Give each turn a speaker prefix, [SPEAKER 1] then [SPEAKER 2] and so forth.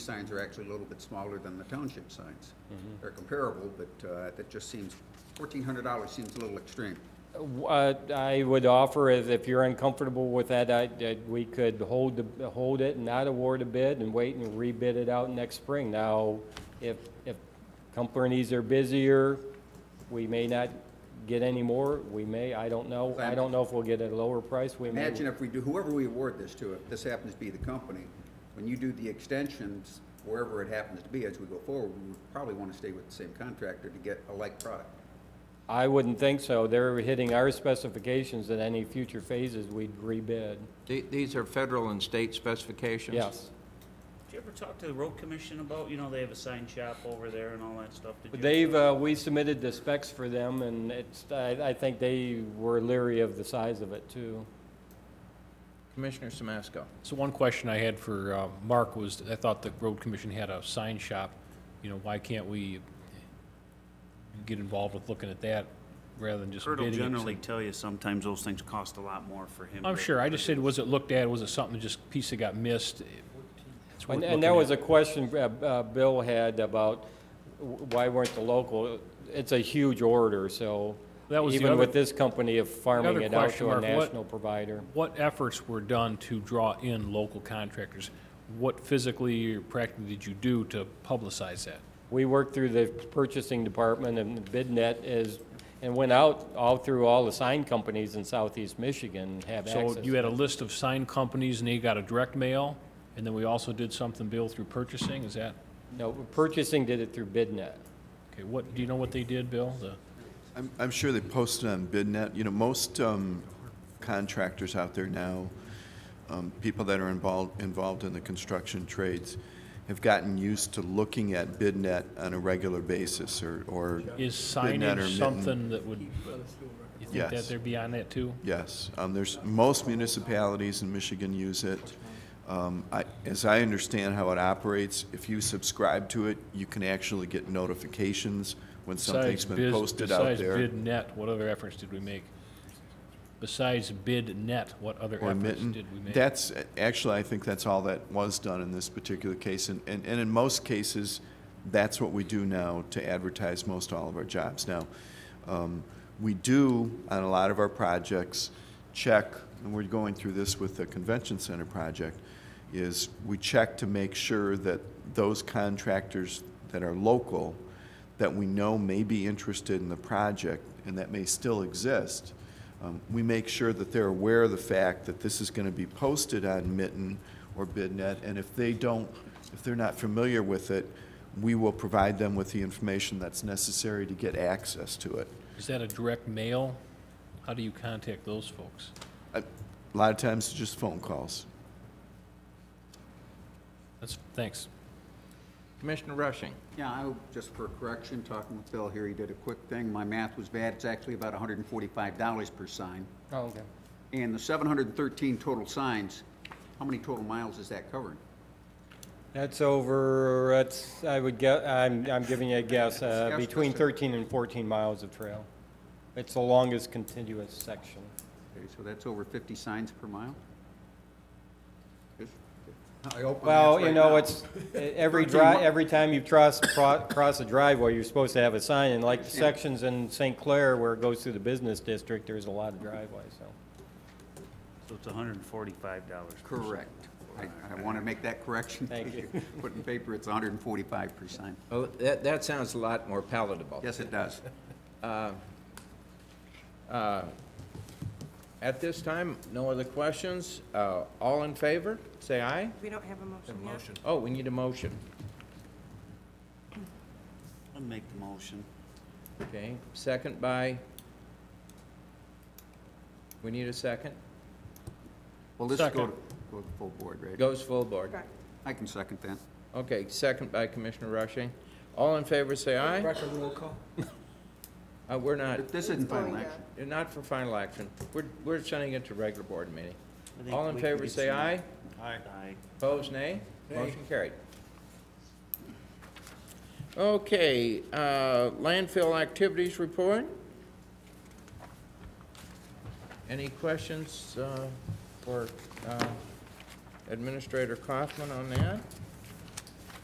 [SPEAKER 1] signs are actually a little bit smaller than the township signs.
[SPEAKER 2] Mm-hmm.
[SPEAKER 1] They're comparable, but uh, that just seems, fourteen hundred dollars seems a little extreme.
[SPEAKER 2] What I would offer is if you're uncomfortable with that, I, that we could hold, the- hold it and not award a bid and wait and rebid it out next spring. Now, if, if companies are busier, we may not get any more, we may, I don't know. I don't know if we'll get a lower price, we may.
[SPEAKER 1] Imagine if we do, whoever we award this to, if this happens to be the company, when you do the extensions, wherever it happens to be as we go forward, we would probably want to stay with the same contractor to get a like product.
[SPEAKER 2] I wouldn't think so. They're hitting our specifications in any future phases we'd rebid.
[SPEAKER 3] The- These are federal and state specifications?
[SPEAKER 2] Yes.
[SPEAKER 4] Did you ever talk to the road commission about, you know, they have a sign shop over there and all that stuff? Did you-
[SPEAKER 2] They've, uh, we submitted the specs for them, and it's, I, I think they were leery of the size of it, too.
[SPEAKER 3] Commissioner Samasco.
[SPEAKER 5] So one question I had for uh, Mark was, I thought the road commission had a sign shop, you know, why can't we get involved with looking at that rather than just
[SPEAKER 4] Kurt will
[SPEAKER 5] bidding? it?
[SPEAKER 4] generally tell you sometimes those things cost a lot more for him.
[SPEAKER 5] I'm
[SPEAKER 4] but-
[SPEAKER 5] sure, I just said, was it looked at, was it something, that just piece that got missed? It's worth
[SPEAKER 2] And, and that
[SPEAKER 5] looking
[SPEAKER 2] was
[SPEAKER 5] at.
[SPEAKER 2] a question uh, uh, Bill had about w- why weren't the local, it's a huge order, so
[SPEAKER 5] That was the
[SPEAKER 2] even
[SPEAKER 5] other-
[SPEAKER 2] with this company of farming
[SPEAKER 5] other
[SPEAKER 2] it out
[SPEAKER 5] question,
[SPEAKER 2] to a
[SPEAKER 5] Mark, what-
[SPEAKER 2] national provider.
[SPEAKER 5] What efforts were done to draw in local contractors? What physically or practically did you do to publicize that?
[SPEAKER 2] We worked through the purchasing department and BidNet is, and went out all through all the sign companies in southeast Michigan have access.
[SPEAKER 5] So you had a list of sign companies and they got a direct mail, and then we also did something, Bill, through purchasing, is that?
[SPEAKER 2] No, purchasing did it through BidNet.
[SPEAKER 5] Okay, what, do you know what they did, Bill? The-
[SPEAKER 6] I'm, I'm sure they posted on BidNet. You know, most um, contractors out there now, um, people that are involved, involved in the construction trades, have gotten used to looking at BidNet on a regular basis or, or
[SPEAKER 5] Is
[SPEAKER 6] BidNet or
[SPEAKER 5] signage
[SPEAKER 6] Mitten.
[SPEAKER 5] something that would, you think that
[SPEAKER 6] Yes.
[SPEAKER 5] they're beyond that too?
[SPEAKER 6] Yes, um, there's, most municipalities in Michigan use it. Um, I, as I understand how it operates, if you subscribe to it, you can actually get notifications when something's
[SPEAKER 5] Besides
[SPEAKER 6] been
[SPEAKER 5] biz-
[SPEAKER 6] posted out there.
[SPEAKER 5] Besides BidNet, what other efforts did we make? Besides BidNet, what other
[SPEAKER 6] Or
[SPEAKER 5] efforts
[SPEAKER 6] mitten.
[SPEAKER 5] did we make?
[SPEAKER 6] That's, actually, I think that's all that was done in this particular case, and, and, and in most cases, that's what we do now to advertise most all of our jobs. Now, um, we do, on a lot of our projects, check, and we're going through this with the convention center project, is we check to make sure that those contractors that are local, that we know may be interested in the project and that may still exist, um, we make sure that they're aware of the fact that this is going to be posted on Mitten or BidNet, and if they don't, if they're not familiar with it, we will provide them with the information that's necessary to get access to it.
[SPEAKER 5] Is that a direct mail? How do you contact those folks?
[SPEAKER 6] Uh, A lot of times, it's just phone calls.
[SPEAKER 5] That's, thanks.
[SPEAKER 3] Commissioner Rushing.
[SPEAKER 1] Yeah, I, just for correction, talking with Bill here, he did a quick thing. My math was bad. It's actually about hundred and forty-five dollars per sign.
[SPEAKER 2] Oh, okay.
[SPEAKER 1] And the seven hundred and thirteen total signs, how many total miles is that covering?
[SPEAKER 2] That's over, that's, I would guess, I'm, I'm giving you a guess, uh,
[SPEAKER 1] Yes,
[SPEAKER 2] between
[SPEAKER 1] Mr.
[SPEAKER 2] 13 and 14 miles of trail. It's the longest continuous section.
[SPEAKER 1] Okay, so that's over fifty signs per mile? I hope I'm
[SPEAKER 2] Well,
[SPEAKER 1] right
[SPEAKER 2] you know,
[SPEAKER 1] now.
[SPEAKER 2] it's, e, every
[SPEAKER 1] 13
[SPEAKER 2] dri,
[SPEAKER 1] mi-
[SPEAKER 2] every time you cross, pro- cross a driveway, you're supposed to have a sign, and like the sections in St. Clair where it goes through the business district, there's a lot of driveways, so.
[SPEAKER 4] So it's hundred and forty-five dollars.
[SPEAKER 1] Correct. I, I want to make that correction.
[SPEAKER 2] Thank you.
[SPEAKER 1] Put in paper, it's hundred and forty-five percent.
[SPEAKER 3] Oh, that, that sounds a lot more palatable.
[SPEAKER 1] Yes, it does.
[SPEAKER 3] At this time, no other questions? Uh, All in favor, say aye.
[SPEAKER 7] We don't have a motion yet.
[SPEAKER 3] Oh, we need a motion.
[SPEAKER 4] I'll make the motion.
[SPEAKER 3] Okay, second by, we need a second?
[SPEAKER 1] Well, this go to, go
[SPEAKER 5] Second.
[SPEAKER 1] to full board, right?
[SPEAKER 3] Goes full board.
[SPEAKER 7] Correct.
[SPEAKER 1] I can second that.
[SPEAKER 3] Okay, second by Commissioner Rushing. All in favor, say aye. Uh, We're not,
[SPEAKER 1] But This isn't final
[SPEAKER 7] Oh, yeah.
[SPEAKER 1] action.
[SPEAKER 3] You're not for final action. We're, we're sending it to regular board meeting.
[SPEAKER 4] I think
[SPEAKER 3] All in
[SPEAKER 4] we can
[SPEAKER 3] favor,
[SPEAKER 4] get
[SPEAKER 3] say
[SPEAKER 4] some-
[SPEAKER 3] aye.
[SPEAKER 4] Aye.
[SPEAKER 3] Opposed, nay? Motion carried. Okay, uh, landfill activities report. Any questions uh, for uh, Administrator Kaufman on that?